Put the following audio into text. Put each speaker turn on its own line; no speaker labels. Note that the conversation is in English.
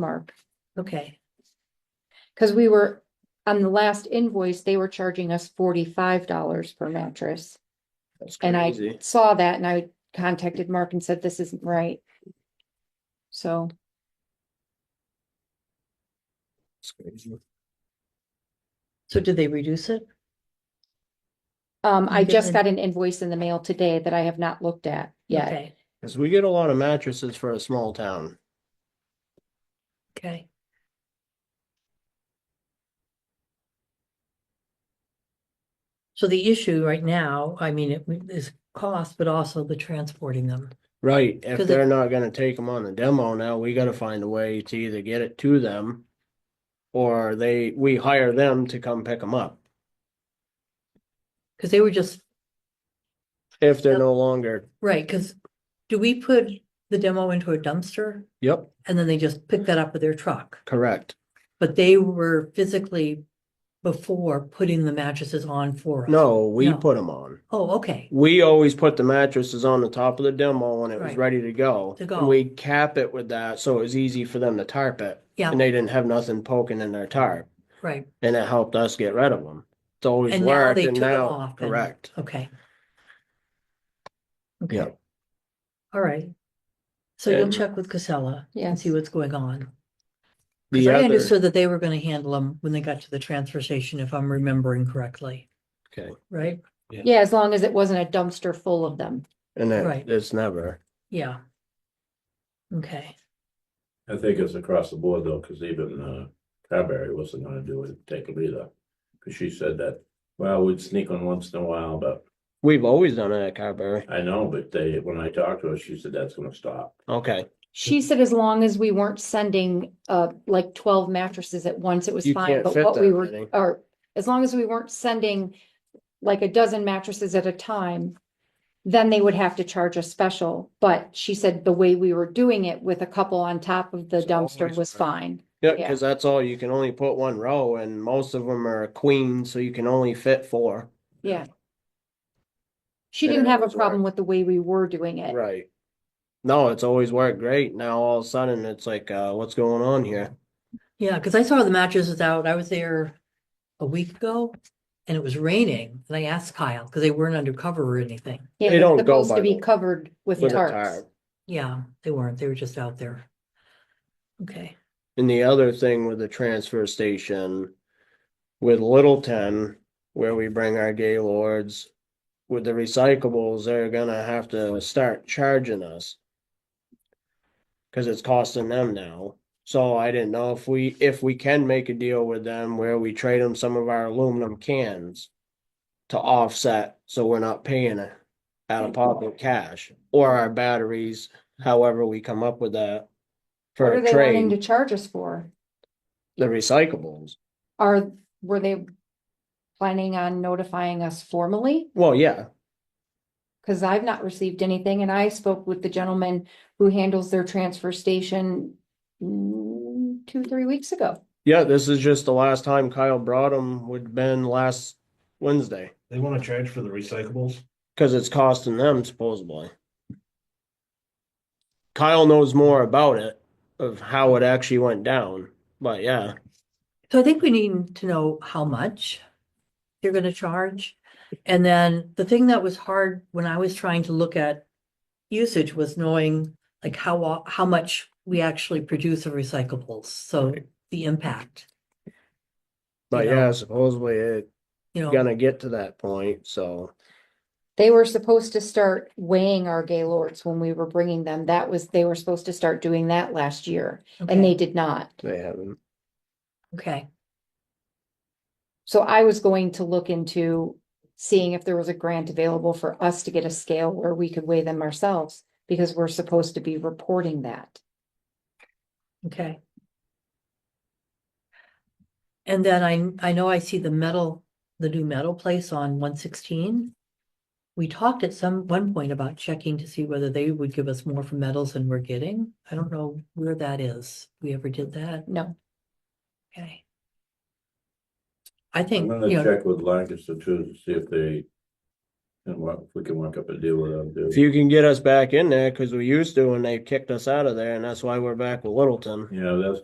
mark.
Okay,
Cause we were, on the last invoice, they were charging us forty-five dollars per mattress.
That's
And I
crazy.
saw that and I contacted Mark and said, this isn't right. So,
That's crazy.
so did they reduce it?
um, I just
Okay.
got an invoice in the mail today that I have not looked at yet.
Okay,
Cause we get a lot of mattresses for a small town.
Okay. So the issue right now, I mean, it is cost, but also the transporting them.
Right, if
'Cause it-
they're not gonna take them on the demo now, we gotta find a way to either get it to them. Or they, we hire them to come pick them up,
Because they were just,
if they're
Yep.
no longer,
right, because do we put the demo into a dumpster?
yep,
And then they just pick that up with their truck?
correct.
But they were physically before putting the mattresses on for us?
No, we
No.
put them on.
Oh, okay,
We always put the mattresses on the top of the demo when it was
Right.
ready to go.
To
and
go.
We cap it with that, so it was easy for them to tarp it.
Yeah.
And they didn't have nothing poking in their tarp,
right,
and it helped us get rid of them. It's always
And now
worked,
they
and
took it
now,
off and-
correct.
okay.
Yeah.
Okay. All right. So you'll
And-
check with Casella and
Yes,
see what's going on. Because
The
I
other-
understood that they were going to handle them when they got to the transfer station, if I'm remembering correctly,
Okay,
right?
yeah, as long as it wasn't a dumpster full of them.
and
Right.
that, it's never.
Yeah. Okay,
I think it's across the board though, because even uh Carberry wasn't gonna do it, take it either. Because she said that, well, we'd sneak one once in a while, but
We've always done it at Carberry.
I know, but they, when I talked to her, she said that's gonna stop.
Okay,
She said as long as we weren't sending, uh, like twelve mattresses at once, it was
You
fine,
can't
but
fit
what we
that
were,
many.
or as long as we weren't sending like a dozen mattresses at a time, then they would have to charge a special, but she said the way we were doing it with a couple on top of the
It's
dumpster
always
was fine.
yeah,
Yeah.
because that's all, you can only put one row and most of them are queens, so you can only fit four.
Yeah. She
Yeah,
didn't have a
that's right.
problem with the way we were doing it.
Right. No, it's always worked great. Now all of a sudden, it's like, uh, what's going on here?
yeah, because I saw the mattresses out, I was there a week ago and it was raining, and I asked Kyle, because they weren't under cover or anything.
Yeah,
They
it's
don't go
Supposed to
by
be
the-
covered with
With a
tarps.
tarp.
Yeah, they weren't, they were just out there. Okay,
And the other thing with the transfer station with Littleton, where we bring our Gaylords, with the recyclables, they're gonna have to start charging us. Cause it's costing them now. So I didn't know if we, if we can make a deal with them where we trade them some of our aluminum cans to offset, so we're not paying it out of pocket cash or our batteries, however we come up with that.
What
For
are
a
they wanting to
trade,
charge us for?
the recyclables.
Are, were they planning on notifying us formally?
Well, yeah,
Cause I've not received anything and I spoke with the gentleman who handles their transfer station mm, two, three weeks ago.
yeah, this is just the last time Kyle brought them would have been last Wednesday,
They wanna charge for the recyclables?
cause it's costing them supposedly. Kyle knows more about it, of how it actually went down, but yeah,
so I think we need to know how much you're gonna charge. And then the thing that was hard when I was trying to look at usage was knowing like how, o- how much we actually produce of recyclables, so
Right.
the impact,
but
Yeah.
yeah, supposedly it
you know.
gonna get to that point, so.
They were supposed to start weighing our Gaylords when we were bringing them. That was, they were supposed to start doing that last year and they
Okay,
did not.
They haven't,
Okay,
So I was going to look into seeing if there was a grant available for us to get a scale where we could weigh them ourselves because we're supposed to be reporting that.
okay. And then I, I know I see the metal, the new metal place on one sixteen. We talked at some, one point about checking to see whether they would give us more for metals than we're getting. I don't know where that is. We ever did that?
No.
Okay. I
I'm
think, you
gonna
know,
check with Lancaster too, to see if they can work, if we can work up a deal with them.
if
dude.
you can get us back in there, cause we used to and they kicked us out of there, and that's why we're back with Littleton.
Yeah, that's